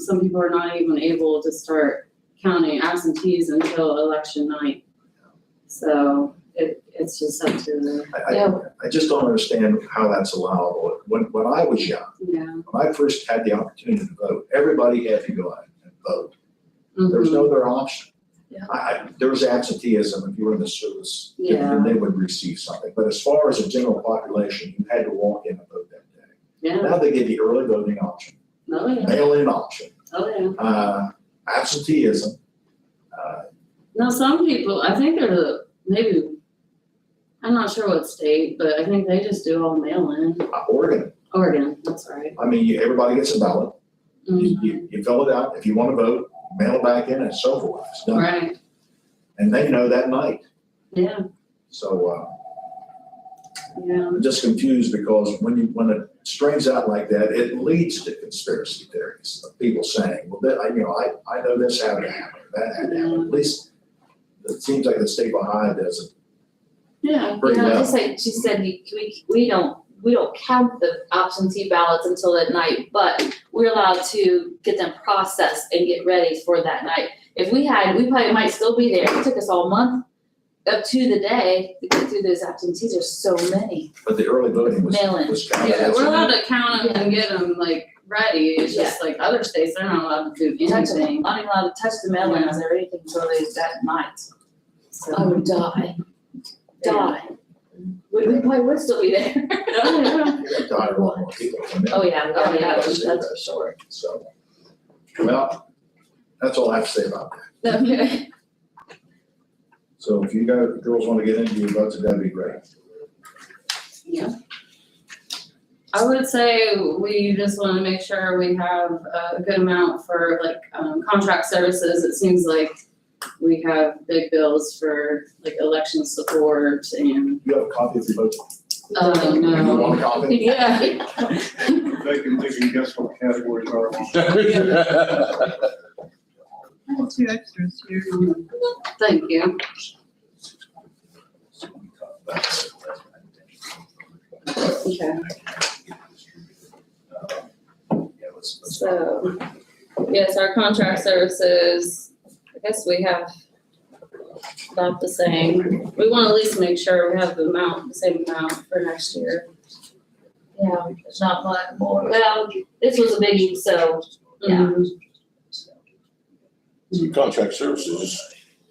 Some people are not even able to start counting absentees until election night. So it, it's just up to the, I, I, I just don't understand how that's allowable. When, when I was young, yeah. when I first had the opportunity to vote, everybody had to go out and vote. There was Mhm. no other option. Yeah. I, I, there was absenteeism if you were in the service, Yeah. then they would receive something. But as far as the general population, you had to walk in and vote that day. Yeah, Now they give you early voting option, oh yeah, mail-in option, oh yeah. uh, absenteeism. Uh, Now, some people, I think they're the- maybe, I'm not sure what state, but I think they just do all mail-in. uh, Oregon, Oregon, that's right. I mean, you- everybody gets a ballot. You, Mhm. you, you fill it out. If you want to vote, mail it back in and so forth. It's done. Right, And they know that night. yeah, So uh, yeah, I'm just confused because when you, when it strains out like that, it leads to conspiracy theories of people saying, well, that, I, you know, I, I know this happened, happened, that happened. At least it seems like the state behind doesn't. yeah. Pretty No, well. just like she said, we, we, we don't, we don't count the absentee ballots until at night, but we're allowed to get them processed and get ready for that night. If we had, we probably might still be there, it took us all month up to the day to get through those absentees, there's so many. But the early voting was, Mail-in. was counted Yeah, as. we're an- allowed to count them and get them like ready, it's just like other states, they're not allowed to do Touch them, anything, not even allowed to touch the mail-ins or anything until they, that night. so. I would Oh, die, yeah. die. We, we probably would still be there. Oh, yeah. You're gonna die a lot more people than that. Oh, yeah, oh, yeah, that's, that's for sure. So, Oh. well, that's all I have to say about that. Okay. So if you guys, girls want to get into your votes, that'd be great. I would say we just wanna make sure we have a good amount for like, um, contract services, it seems like we have big bills for like election support and, You have a copy of your vote? oh, You no. want a copy? Yeah. They can, they can guess what categories are. I have two extras here. Thank you. Okay. So, yes, our contract services, I guess we have about the same. We want to at least make sure we have the amount, the same amount for next year. Yeah, it's not much more. Well, this was a biggie, so, yeah. Mm-hmm. Contract services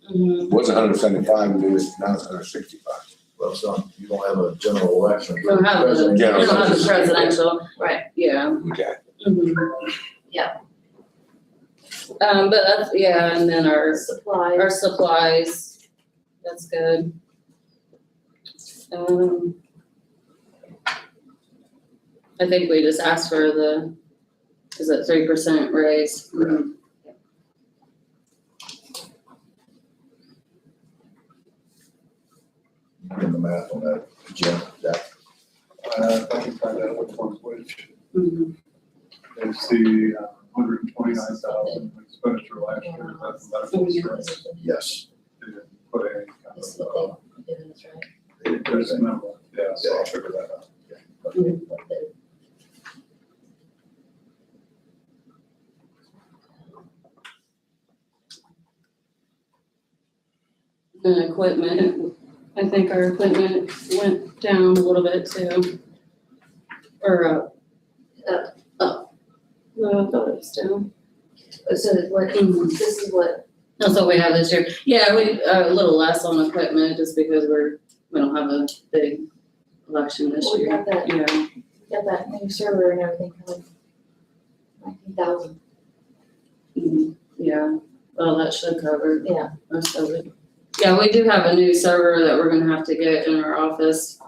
Mhm. was hundred and seventy-five, and it was now it's hundred and sixty-five. Well, it's not, you don't have a general election. We don't have the, we General don't have the services. presidential. Right. Yeah. Okay. Mhm. Yeah. Um, but that's, yeah, and then our Supply. Our supplies, that's good. Um. I think we just asked for the, is it three percent raise? In the math on that, Jim, that, Uh, I can find out which one's which. Mhm. It's the uh, hundred and twenty-nine thousand expenditure last year, that's medical insurance. yes. They didn't Put any kind That's of, what they did, that's right. uh, there's a number, yeah, so I'll figure that out. What they- And equipment, I think our equipment went down a little bit too. Or up. Up. Up. No, I thought it was down. Oh, So it's what, Mhm. this is what, That's what we have this year. Yeah, we, uh, a little less on equipment just because we're, we don't have a big election this we year. got that, Yeah. got that new server and everything for like nineteen thousand. Mhm, Yeah, well, that should cover. Yeah. Most of it. Yeah, we do have a new server that we're gonna have to get in our office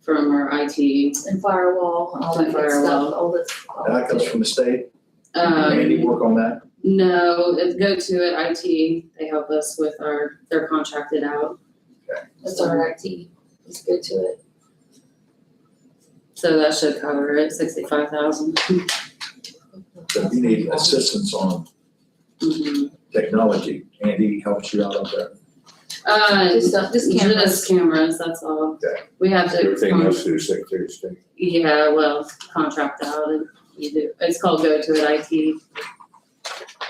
from our IT. And firewall, all that good Firewall. stuff, all this. all And that that. comes from the state, Andy, Um, work on that. no, it's go to it, IT, they help us with our, they're contracted out. That's our IT, it's good to it. So that should cover it, sixty-five thousand. So if you need assistance on Mm-hmm. technology, Andy helps you out on that. Uh, Just stuff, just cameras. just cameras, that's all. Okay. We have to. Everything con- else through Secretary of State. Yeah, well, contract out and you do, it's called go to it IT.